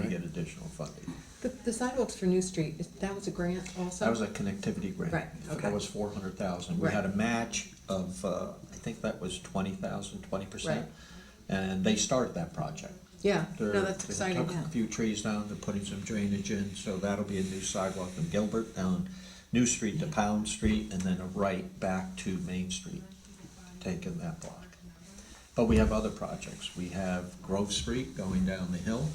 additional funding. The, the sidewalks for New Street, is- that was a grant also? That was a connectivity grant. Right, okay. That was four hundred thousand. We Right. had a match of, uh, I think that was twenty thousand, twenty percent. Right. And they started that project. Yeah, They're- no, that's they exciting, took yeah. A few trees down, they're putting some drainage in, so that'll be a new sidewalk from Gilbert down New Street to Pound Street, and then a right back to Main Street, taking that block. But we have other projects, we have Grove Street going down the hill,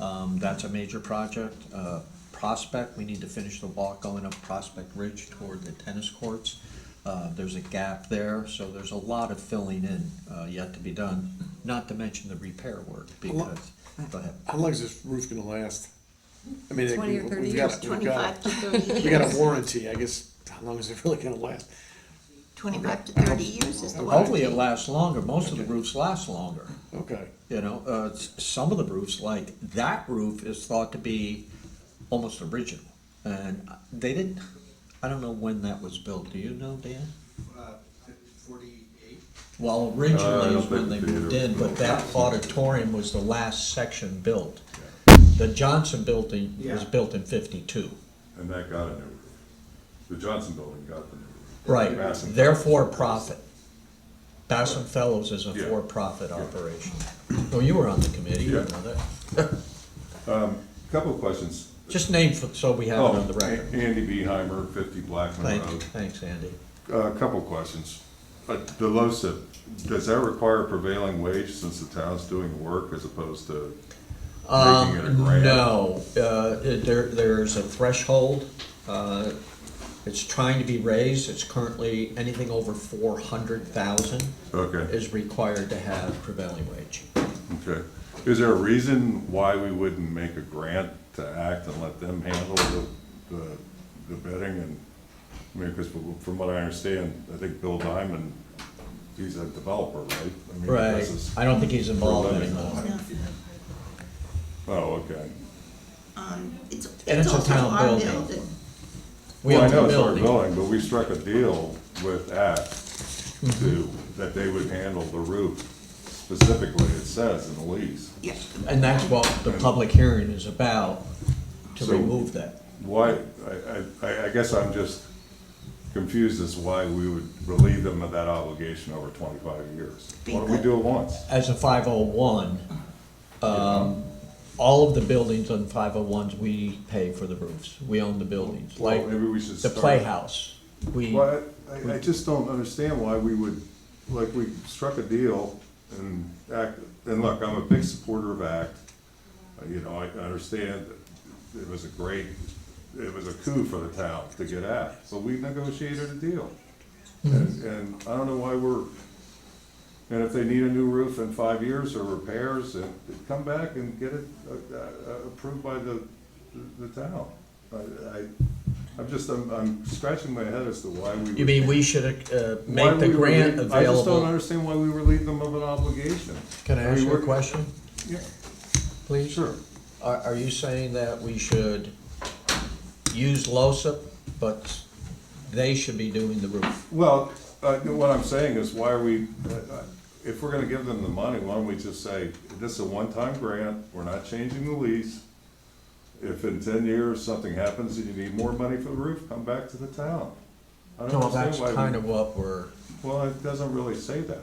um, that's a major project. Uh, Prospect, we need to finish the walk going up Prospect Ridge toward the tennis courts. Uh, there's a gap there, so there's a lot of filling in, uh, yet to be done, not to mention the repair work, lot- because, go ahead. How long is this roof gonna last? I mean, Twenty or we- thirty we've got- years, we've got- Twenty-five to thirty We got years, a warranty, I guess, how long is it really gonna last? twenty-five to thirty years is the warranty. Hopefully it lasts longer, most of the roofs last longer, Okay, you know, uh, s- some of the roofs, like, that roof is thought to be almost original. And they didn't, I don't know when that was built, do you know, Dan? Uh, forty-eight. Well, Uh, I originally don't is when they think moved theater in, but was that auditorium was the last section built. The Johnson building was Yeah. built in fifty-two. And that got a new roof. The Johnson Building got the new roof. Right, Bassam- they're for-profit. Bassam Fellows is a Yeah. for-profit Yeah. operation. Well, you were on the committee, you Yeah. know that. Couple of questions. Just name, for- so we have it Oh, on the record. Andy Beheimer, fifty Blackman Thank you, Road. thanks, Andy. A couple of questions. Uh, The LoSiP, does that require prevailing wage since the town's doing the work as opposed to making it a Um, grant? no, uh, it- there, there's a threshold, uh, it's trying to be raised, it's currently, anything over four hundred thousand Okay, is required to have prevailing wage. okay. Is there a reason why we wouldn't make a grant to act and let them handle the, the- the bidding and, I mean, because from what I understand, I think Bill Diamond, he's a developer, right? I mean, Right, this is- I don't think he's involved living. anymore. Oh, okay. Um, It's, And it's it's a also town our building. building. We Well, I own know the it's our building. building, but we struck a deal with Act to, Mm-hmm. that they would handle the roof specifically, it says in the lease. Yeah. And that's what the public hearing is about, to So- remove that. Why, I, I, I guess I'm just confused as why we would relieve them of that obligation over twenty-five years. Why don't we do it once? As a five oh one, um, all of the buildings on five oh ones, we pay for the roofs, we own the buildings, Well, like maybe we should the start- playhouse. We, Well, I, I just don't understand why we would, like, we struck a deal and act, and look, I'm a big supporter of ACT. Uh, You know, I understand that it was a great, it was a coup for the town to get ACT, so we negotiated a deal. Mm-hmm. And, and I don't know why we're, and if they need a new roof in five years or repairs, uh, come back and get it uh, uh, approved by the, the town. I, I, I'm just, I'm, I'm scratching my head as to why we. you mean we should, uh, would- make why the we would grant leave- I just don't available? understand why we relieve them of an obligation. Can I I mean, ask you a we're- question, Yeah, please? sure. Are, are you saying that we should use LOSIP, but they should be doing the roof? Well, uh, what I'm saying is, why are we, uh, uh, if we're gonna give them the money, why don't we just say, this is a one-time grant, we're not changing the lease. If in ten years something happens and you need more money for the roof, come back to the town. I don't No, understand that's why we- kind of what we're, Well, it doesn't really say that.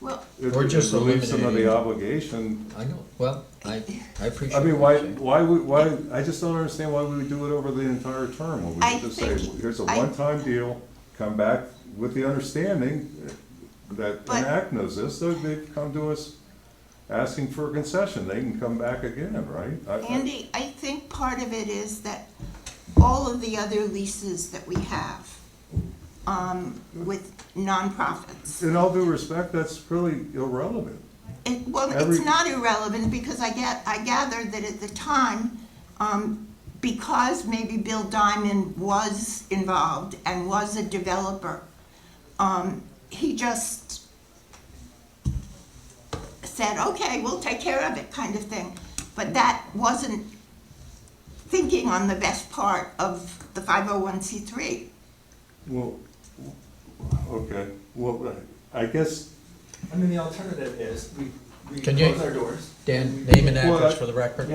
Well, It- We're it just relieves some of the eliminating- obligation. I know, well, I, I appreciate. I mean, what why, you're saying. why, would- why, I just don't understand why we would do it over the entire term, when we I could just say, think- here's a I- one-time deal, come back with the understanding that, But- and ACT knows this, so they come to us asking for a concession, they can come back again, right? I- I- Andy, I think part of it is that all of the other leases that we have um, with nonprofits, In all due respect, that's really irrelevant. it, well, Every- it's not irrelevant because I get, I gather that at the time, um, because maybe Bill Diamond was involved and was a developer, um, he just said, okay, we'll take care of it, kind of thing. But that wasn't thinking on the best part of the 501c3. Well, okay, well, I guess, I mean, the alternative is we, we Can you- close our doors. Dan, name and Well, address I- for the record.